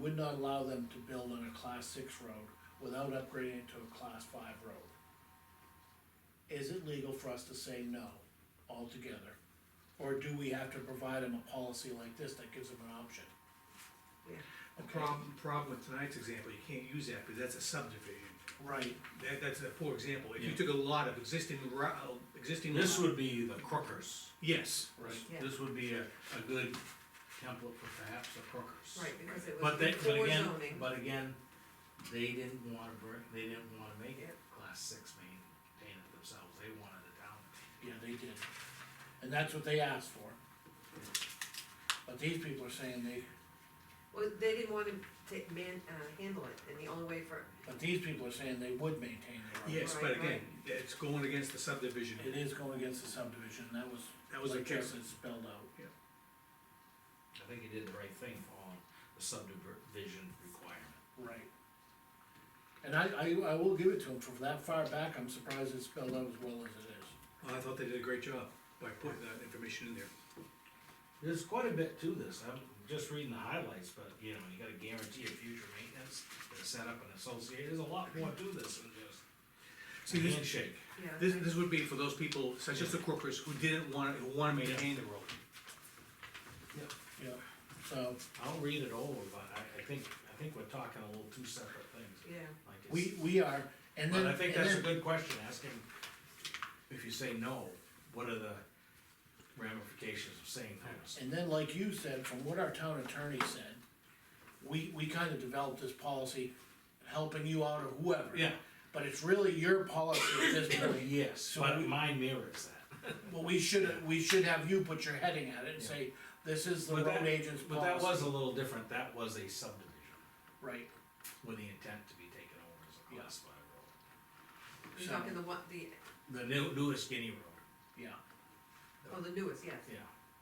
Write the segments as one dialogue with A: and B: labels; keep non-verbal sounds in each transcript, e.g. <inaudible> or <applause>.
A: would not allow them to build on a class six road without upgrading it to a class five road. Is it legal for us to say no altogether? Or do we have to provide them a policy like this that gives them an option?
B: The problem, problem with tonight's example, you can't use that, because that's a subdivision,
A: Right,
B: that, that's a poor example, if you
C: Yeah.
B: took a lot of existing ro- uh, existing.
C: This
B: lot-
C: would be the crookers.
B: Yes,
A: right.
D: Yeah.
C: This would be a, a good template for perhaps the crookers.
D: Right, because it was
C: But they, but
D: before
C: again,
D: zoning.
C: but again, they didn't wanna bring, they didn't wanna make it
D: Yep.
C: class six maintained it themselves, they wanted the town.
A: Yeah, they did, and that's what they asked for. But these people are saying they,
D: Well, they didn't wanna take, man, uh, handle it, and the only way for,
A: but these people are saying they would maintain their road.
B: yes, but
D: Right,
B: again, it's going against the subdivision,
A: It is going against the subdivision, and that was,
B: that was a
A: like
B: case,
A: Justin spelled out.
C: I think you did the right thing on the subdivision requirement.
A: Right. And I, I, I will give it to him, from that far back, I'm surprised it's spelled out as well as it is.
B: I thought they did a great job by putting that information in there.
C: There's quite a bit to this, I'm just reading the highlights, but you know, you gotta guarantee a future maintenance, the setup and associate, there's a lot more to this
B: See,
C: than just a
B: this-
C: handshake.
D: yeah.
B: This,
D: I-
B: this would be for those people, such as the crookers, who didn't wanna, who wanna maintain the road.
A: Yeah. So,
C: I'll read it over, but I, I think, I think we're talking a little two separate things.
D: Yeah,
C: Like
A: we,
C: it's-
A: we are, and then.
C: But I think
A: and
C: that's a
A: then-
C: good question, ask him, if you say no, what are the ramifications of saying no?
A: And then, like you said, from what our town attorney said, we, we kind of developed this policy, helping you out or whoever.
C: Yeah.
A: But it's really your policy at this
C: <coughs>
A: point.
C: Yes,
A: So
C: but
A: we-
C: mine mirrors that.
A: Well, we should, we should have you put your heading at it and say, this is the
C: But that-
A: road agent's policy.
C: But that was a little different, that was a subdivision,
A: Right,
C: with the intent to be taken over as a class five road.
D: you're
A: So-
D: talking the one, the,
C: The new, newest guinea road,
A: yeah,
D: oh, the newest, yes,
C: yeah.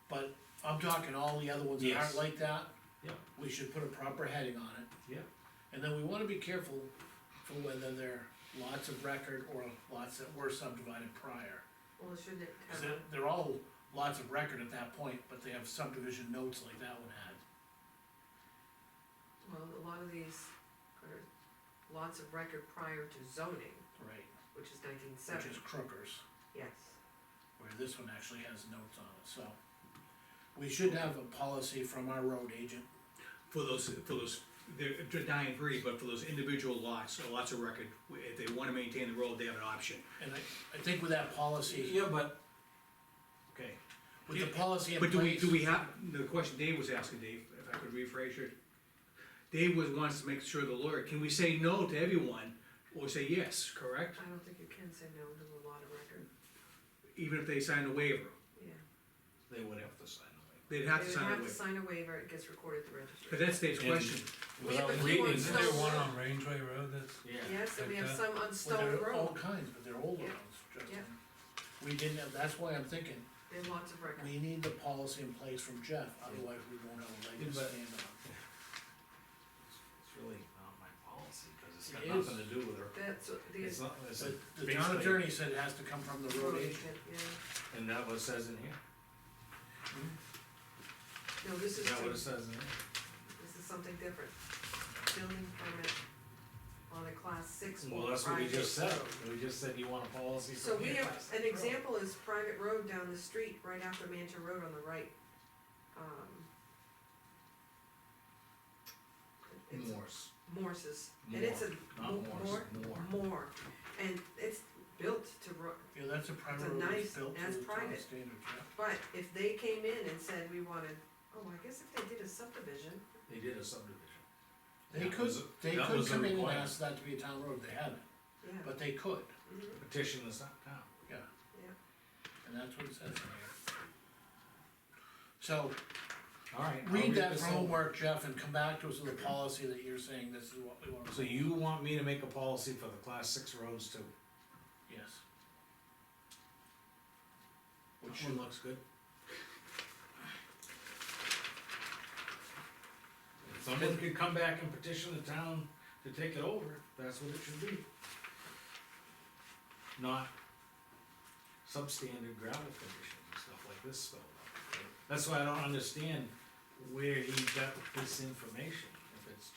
A: but I'm talking all the other ones that aren't
C: Yes.
A: like that.
C: Yeah.
A: We should put a proper heading on it.
C: Yeah.
A: And then we wanna be careful for whether they're lots of record or lots that were subdivided prior.
D: well, shouldn't it,
A: Cause
D: uh,
A: they're, they're all lots of record at that point, but they have subdivision notes like that one had.
D: well, a lot of these are lots of record prior to zoning,
A: Right.
D: which is nineteen
A: Which
D: seventy,
A: is Crookers,
D: yes.
A: where this one actually has notes on it, so. We should have a policy from our road agent,
B: For those, for those, they're they're dying breed, but for those individual lots, or lots of record, if they wanna maintain the road, they have an option.
A: and I, I think with that policy,
C: Yeah, but, okay,
A: with the policy in
B: But
A: place.
B: do we, do we have, the question Dave was asking, Dave, if I could rephrase it. Dave was, wants to make sure the lawyer, can we say no to everyone, or say yes, correct?
D: I don't think you can say no to a lot of record,
B: Even if they sign a waiver,
D: yeah.
C: they would have to sign away.
B: they'd have to
D: They would
B: sign a
D: have to
B: waiver.
D: sign a waiver, it gets recorded at the registry.
B: But that's Dave's
C: And-
B: question,
D: Yeah,
C: Without
D: but he
C: reading
D: wants
C: this.
E: Isn't there one on Rangeway Road that's,
C: Yeah,
D: Yes, and we have
E: Like
D: some on
A: Well,
D: Stone
A: they're all
D: Road,
A: kinds, but they're older
D: Yeah.
A: ones, Justin. We didn't have, that's why I'm thinking,
D: there are lots of record,
A: we need the policy in place from Jeff, otherwise we won't have a leg to
C: Yeah, but-
A: stand on.
C: it's really not my policy, cause it's
A: It
C: got
A: is.
C: nothing to do with her.
D: that's, what the.
C: It's not, it's
A: But the town
C: basically-
A: attorney said it has to come from the road agent.
D: Yeah,
C: And that what it says in here?
D: no, this is,
C: Is that what it
D: this
C: says in here?
D: is something different, building permit on a class six or
C: Well, that's what we
D: private
C: just said,
D: road.
C: we just said you want a policy
D: So
C: from
D: we
C: here.
D: have, an example is private road down the street, right after Manta Road on the right, um. it's
C: Morse,
D: Morse's, and it's a
C: not
D: mo-
C: Morse,
D: more,
C: more.
D: more, and it's built to ro-
A: Yeah, that's a
D: It's
A: private
D: a
A: road that's
D: nice-
A: built to
D: that's
A: the town
D: private.
A: standards, yeah.
D: But if they came in and said we wanted, oh, I guess if they did a subdivision,
C: They did a subdivision.
A: They
C: That
A: could,
C: was-
A: they
C: that
A: could
C: was a
A: come in and
C: requirement.
A: ask that to be a town road, they haven't,
D: yeah,
A: but they could,
D: mhm,
C: Petition the sub- town.
A: yeah,
D: yeah.
A: and that's what it says in here. So,
C: Alright. I'll
A: read that
C: this
A: for
C: over.
A: homework, Jeff, and come back to us with a policy that you're saying this is what we want.
C: So you want me to make a policy for the class six roads too?
A: Yes. Which
C: Which one looks good? If Someone could come back and petition the town to take it over, that's what it should be. Not substandard gravel conditions and stuff like this spelled out. That's why I don't understand where he got this information.